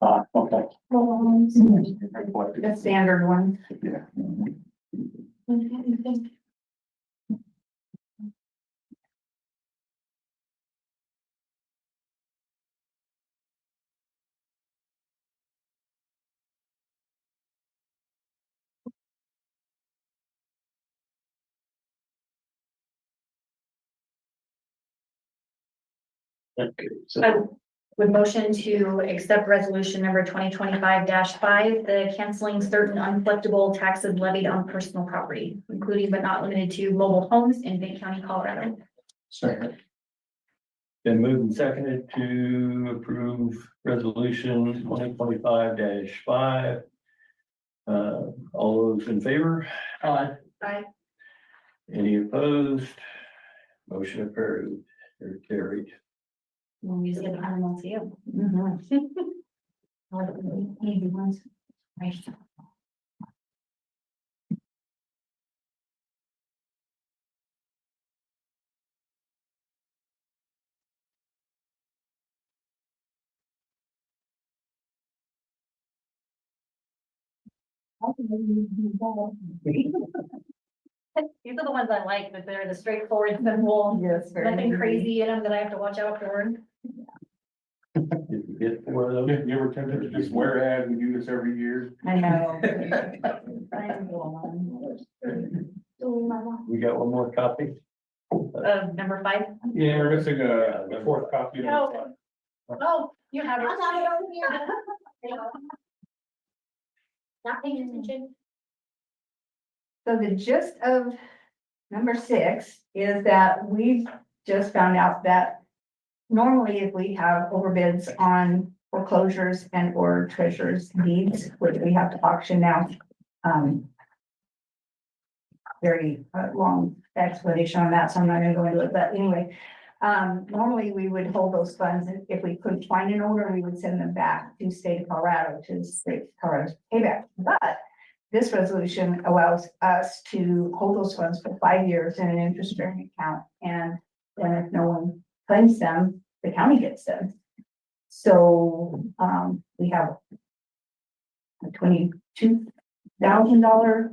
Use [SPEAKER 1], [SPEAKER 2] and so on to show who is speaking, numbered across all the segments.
[SPEAKER 1] Ah, okay.
[SPEAKER 2] The standard one.
[SPEAKER 1] Yeah. Okay, so
[SPEAKER 2] I would motion to accept resolution number twenty twenty-five five, the canceling certain uncollectible taxes levied on personal property, including but not limited to mobile homes in Bay County, Colorado.
[SPEAKER 1] Second.
[SPEAKER 3] Been moved and seconded to approve resolution twenty twenty-five dash five. Uh, all those in favor? Aye.
[SPEAKER 2] Aye.
[SPEAKER 3] Any opposed? Motion approved or carried.
[SPEAKER 2] We'll use it in RMLCO. Mm-hmm. Maybe once. Right. These are the ones I like, but they're the straightforward, simple,
[SPEAKER 4] Yes. very
[SPEAKER 2] nothing
[SPEAKER 4] good.
[SPEAKER 2] crazy in them that I have to watch out for.
[SPEAKER 3] Did you get four of those?
[SPEAKER 1] You you ever tempted to just wear ad and do this every year?
[SPEAKER 4] I know.
[SPEAKER 3] We got one more copy?
[SPEAKER 2] Uh, number five.
[SPEAKER 1] Yeah, we're missing a, a fourth copy.
[SPEAKER 2] Oh. Oh, you have.
[SPEAKER 5] I got it over here. Not paying attention.
[SPEAKER 4] So the gist of number six is that we've just found out that normally if we have overbids on foreclosures and or treasurer's deeds, which we have to auction now, um, very uh, long explanation on that, so I'm not gonna go into it, but anyway, um, normally we would hold those funds, and if we couldn't find an owner, we would send them back to state of Colorado, to the state of Colorado's payback. But this resolution allows us to hold those funds for five years in an interest-bearing account, and then if no one claims them, the county gets them. So, um, we have a twenty-two thousand dollar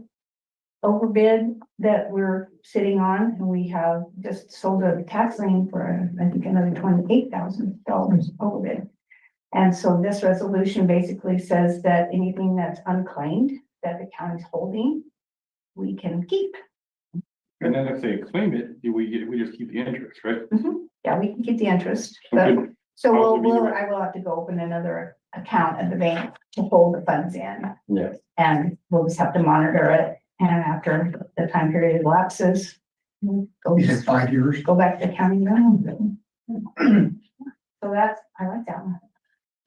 [SPEAKER 4] overbid that we're sitting on, and we have just sold a tax lien for, I think, another twenty-eight thousand dollars overbid. And so this resolution basically says that anything that's unclaimed that the county's holding, we can keep.
[SPEAKER 1] And then if they claim it, do we get, we just keep the interest, right?
[SPEAKER 4] Mm-hmm. Yeah, we can keep the interest,
[SPEAKER 1] So
[SPEAKER 4] but,
[SPEAKER 1] could-
[SPEAKER 4] so we'll,
[SPEAKER 1] possibly do
[SPEAKER 4] we'll,
[SPEAKER 1] it.
[SPEAKER 4] I will have to go open another account at the bank to hold the funds in.
[SPEAKER 3] Yeah.
[SPEAKER 4] And we'll just have to monitor it, and after the time period lapses, we'll go,
[SPEAKER 6] five years.
[SPEAKER 4] go back to county loan. So that's, I like that one.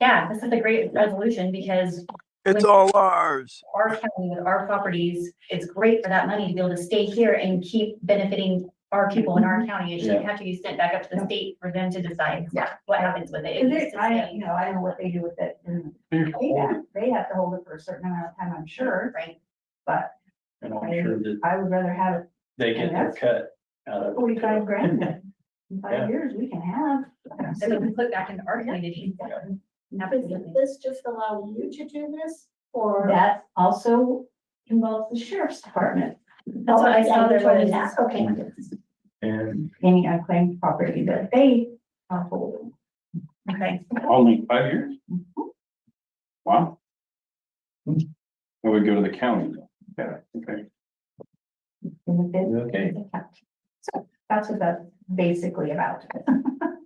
[SPEAKER 2] Yeah, this is a great resolution because
[SPEAKER 7] It's all ours.
[SPEAKER 2] our county with our properties, it's great for that money to be able to stay here and keep benefiting our people in our county. It shouldn't have to be sent back up to the state for them to decide
[SPEAKER 4] Yeah.
[SPEAKER 2] what happens with it. It
[SPEAKER 4] Is
[SPEAKER 2] needs
[SPEAKER 4] it,
[SPEAKER 2] to
[SPEAKER 4] I,
[SPEAKER 2] stay,
[SPEAKER 4] you know, I don't know what they do with it, and
[SPEAKER 1] They're
[SPEAKER 4] they
[SPEAKER 1] holding.
[SPEAKER 4] have, they have to hold it for a certain amount of time, I'm sure,
[SPEAKER 2] Right.
[SPEAKER 4] but
[SPEAKER 3] And I'm sure that
[SPEAKER 4] I would rather have it
[SPEAKER 3] they get their cut out of it.
[SPEAKER 4] forty-five grand than in
[SPEAKER 3] Yeah.
[SPEAKER 4] five years, we can have.
[SPEAKER 2] So we can put back into our community.
[SPEAKER 5] Does
[SPEAKER 2] Absolutely.
[SPEAKER 5] this just allow you to do this or?
[SPEAKER 4] That also involves the sheriff's department.
[SPEAKER 2] That's what I saw there was-
[SPEAKER 4] Okay.
[SPEAKER 3] And
[SPEAKER 4] Any unclaimed property that they are holding.
[SPEAKER 2] Okay,
[SPEAKER 1] Only five years?
[SPEAKER 4] Mm-hmm.
[SPEAKER 1] Wow. Well, we go to the county. Yeah, okay.
[SPEAKER 4] in the bid.
[SPEAKER 3] Okay.
[SPEAKER 4] So that's what that's basically about.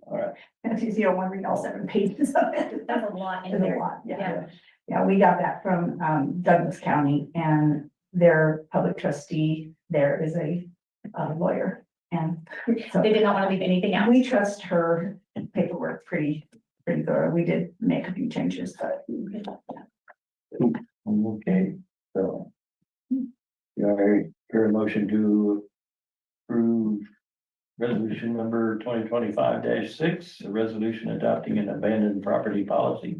[SPEAKER 3] All right.
[SPEAKER 4] If you don't want to read all seven pages of it.
[SPEAKER 2] that's a lot in
[SPEAKER 4] It's a
[SPEAKER 2] there.
[SPEAKER 4] lot, yeah. Yeah, we got that from um, Douglas County and their public trustee there is a uh, lawyer. And so
[SPEAKER 2] They did not want to leave anything out.
[SPEAKER 4] we trust her paperwork pretty, pretty thorough. We did make a few changes, but
[SPEAKER 3] Okay, so. Do I hear a motion to approve resolution number twenty twenty-five six, a resolution adopting an abandoned property policy?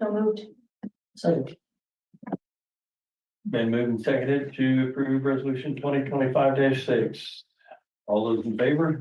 [SPEAKER 2] So moved.
[SPEAKER 3] Been moved and seconded to approve resolution twenty twenty-five six. All those in favor?